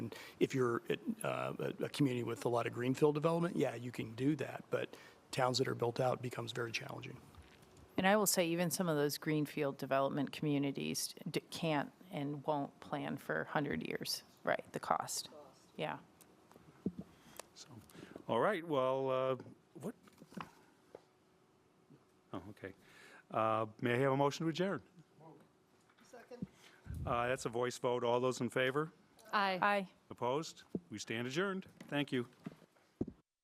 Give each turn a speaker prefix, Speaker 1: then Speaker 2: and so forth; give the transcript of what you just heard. Speaker 1: And if you're uh, a, a community with a lot of greenfield development, yeah, you can do that. But towns that are built out becomes very challenging.
Speaker 2: And I will say, even some of those greenfield development communities d- can't and won't plan for 100 years, right, the cost. Yeah.
Speaker 3: All right, well, uh, what? Oh, okay. Uh, May I have a motion to adjourn? Uh, Second. That's a voice vote. All those in favor?
Speaker 4: Aye.
Speaker 2: Aye.
Speaker 3: Opposed? We stand adjourned. Thank you.